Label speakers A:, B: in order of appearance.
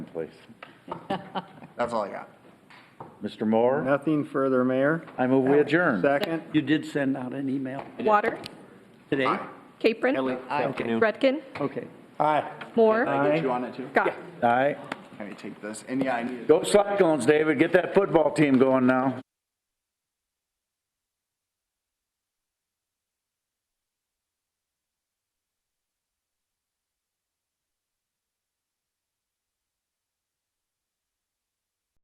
A: please.
B: That's all I got.
A: Mr. Moore,
C: Nothing further, Mayor.
A: I move we adjourn.
C: Second.
D: You did send out an email
E: Water,
D: today?
E: Capron,
D: Okay,
E: Redkin,
D: okay.
C: Aye.
E: Moore,
B: Get
C: Aye.
B: you on it too?
E: Scott.
A: Aye.
B: Let me take this. And yeah, I need it.
A: Go Cyclones, David. Get that football team going now.